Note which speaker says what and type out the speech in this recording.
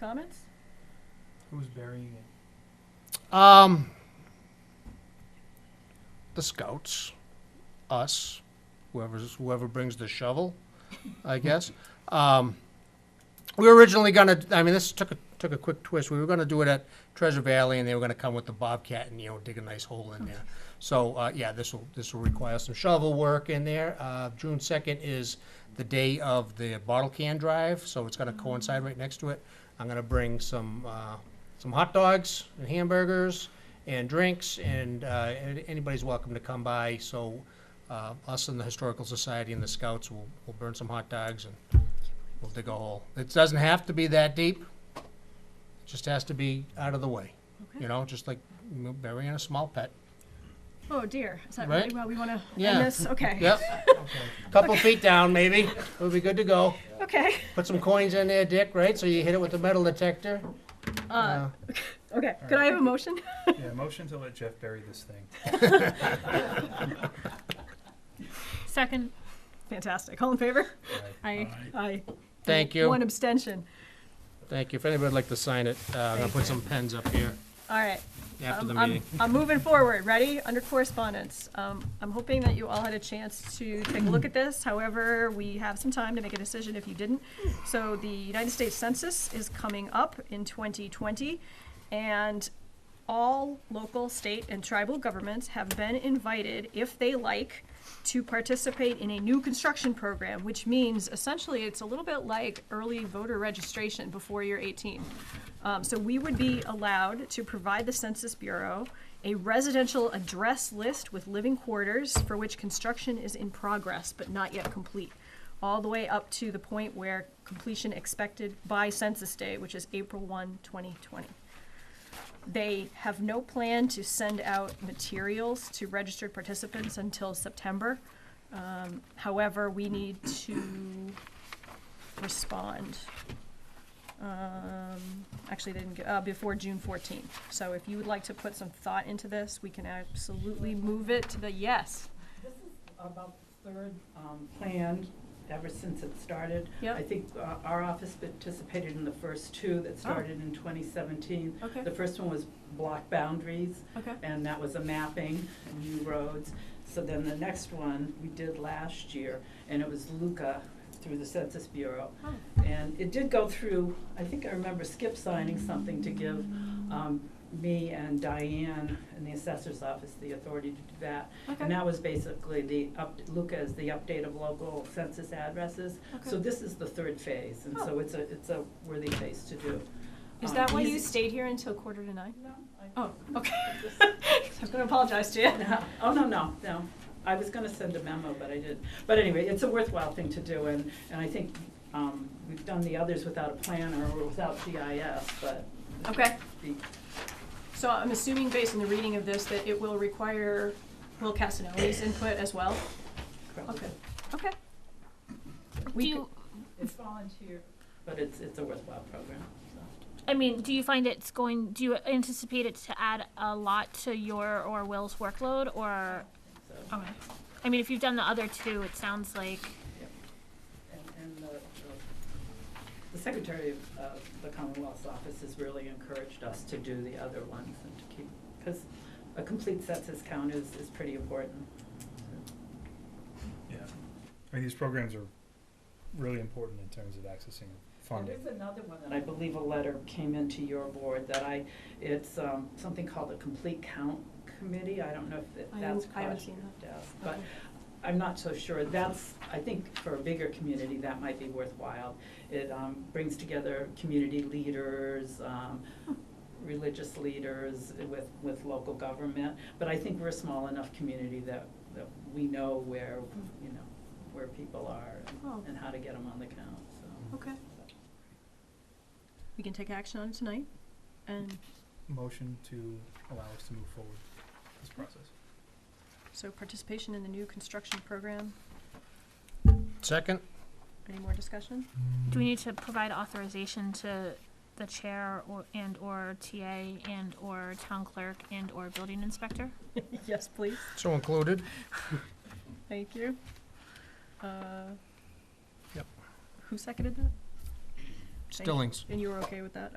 Speaker 1: Comments?
Speaker 2: Who's burying it?
Speaker 3: Um, the scouts, us, whoever's whoever brings the shovel, I guess. Um, we were originally gonna. I mean, this took a took a quick twist. We were gonna do it at Treasure Valley, and they were gonna come with the bobcat and you know dig a nice hole in there. So uh, yeah, this will this will require some shovel work in there. Uh, June second is the day of the bottle can drive, so it's gonna coincide right next to it. I'm gonna bring some uh, some hot dogs and hamburgers and drinks, and uh, an- anybody's welcome to come by. So uh, us and the historical society and the scouts will will burn some hot dogs and we'll dig a hole. It doesn't have to be that deep. It just has to be out of the way.
Speaker 1: Okay.
Speaker 3: You know, just like you know, burying a small pet.
Speaker 1: Oh dear, is that
Speaker 3: Right?
Speaker 1: really, well, we want to
Speaker 3: Yeah.
Speaker 1: end this? Okay.
Speaker 3: Yep. Couple feet down, maybe. We'll be good to go.
Speaker 1: Okay,
Speaker 3: Put some coins in there, Dick. Right, so you hit it with the metal detector.
Speaker 1: uh, okay, could I have a motion?
Speaker 2: Yeah, motion to let Jeff bury this thing.
Speaker 4: Second,
Speaker 1: Fantastic, all in favor?
Speaker 4: I,
Speaker 1: Aye.
Speaker 3: Thank you.
Speaker 1: One abstention.
Speaker 3: Thank you. If anybody'd like to sign it, uh, I'm gonna put some pens up here
Speaker 1: All right. Um,
Speaker 3: after the
Speaker 1: I'm- I'm-
Speaker 3: meeting.
Speaker 1: I'm moving forward, ready? Under correspondence. Um, I'm hoping that you all had a chance to take a look at this. However, we have some time to make a decision if you didn't. So the United States Census is coming up in 2020, and all local, state, and tribal governments have been invited, if they like, to participate in a new construction program, which means essentially it's a little bit like early voter registration before you're 18. Um, so we would be allowed to provide the Census Bureau a residential address list with living quarters for which construction is in progress but not yet complete, all the way up to the point where completion expected by Census Day, which is April 1, 2020. They have no plan to send out materials to registered participants until September. Um, however, we need to respond. Um, actually, they didn't, get- uh, before June fourteenth. So if you would like to put some thought into this, we can absolutely move it to the yes.
Speaker 5: This is about the third um, plan ever since it started.
Speaker 1: Yep.
Speaker 5: I think uh, our office participated in the first two that started in 2017.
Speaker 1: Okay.
Speaker 5: The first one was block boundaries,
Speaker 1: Okay.
Speaker 5: and that was a mapping, and new roads. So then the next one we did last year, and it was Luca through the Census Bureau. And it did go through, I think I remember Skip signing something to give um, me and Diane in the assessor's office the authority to do that.
Speaker 1: Okay.
Speaker 5: And that was basically the, up Luca is the update of local census addresses. So
Speaker 1: Oh, Okay.
Speaker 5: this is the third phase, and so
Speaker 1: Oh.
Speaker 5: it's a, it's a worthy phase to do.
Speaker 1: Is
Speaker 5: Um,
Speaker 1: that why you
Speaker 5: easy-
Speaker 1: stayed here until quarter to nine?
Speaker 5: No, I-
Speaker 1: Oh, okay. I'm gonna apologize to you.
Speaker 5: Oh, no, no, no. I was gonna send a memo, but I didn't. But anyway, it's a worthwhile thing to do, and, and I think um, we've done the others without a plan or without GIS, but. it
Speaker 1: Okay.
Speaker 5: should be-
Speaker 1: So I'm assuming based on the reading of this that it will require Will Casanelli's input as well? Okay, okay.
Speaker 4: do
Speaker 1: We,
Speaker 4: you,
Speaker 1: could-
Speaker 5: It's volunteer. But it's, it's a worthwhile program, so.
Speaker 4: I mean, do you find it's going, do you anticipate it to add a lot to your or Will's workload or?
Speaker 5: so.
Speaker 4: Okay. I mean, if you've done the other two, it sounds like,
Speaker 5: And, and the, the- the Secretary of, of the Commonwealth's office has really encouraged us to do the other ones and to keep, because a complete census count is, is pretty important.
Speaker 2: Yeah. I mean, these programs are really important in terms of accessing funding.
Speaker 5: There is another one that I believe a letter came into your board that I, it's, um, something called the Complete Count Committee. I don't know if it-
Speaker 1: I
Speaker 5: that's
Speaker 1: haven't- I haven't
Speaker 5: crossed
Speaker 1: seen
Speaker 5: your
Speaker 1: that.
Speaker 5: desk, but I'm not so sure. That's, I think for a bigger community, that might be worthwhile. It, um, brings together community leaders, um, religious leaders with, with local government. But I think we're a small enough community that, that we know where, you know, where people are and-
Speaker 1: Oh.
Speaker 5: and how to get them on the count, so.
Speaker 1: okay. We can take action on it tonight and
Speaker 2: Motion to allow us to move forward with this process.
Speaker 1: so participation in the new construction program.
Speaker 3: Second?
Speaker 1: Any more discussion?
Speaker 4: do we need to provide authorization to the chair or, and or TA and or town clerk and or building inspector?
Speaker 1: Yes, please.
Speaker 3: So included?
Speaker 1: Thank you. Uh,
Speaker 3: Yep.
Speaker 1: Who seconded that? Thank you.
Speaker 3: Stillings.
Speaker 1: And you were okay with that?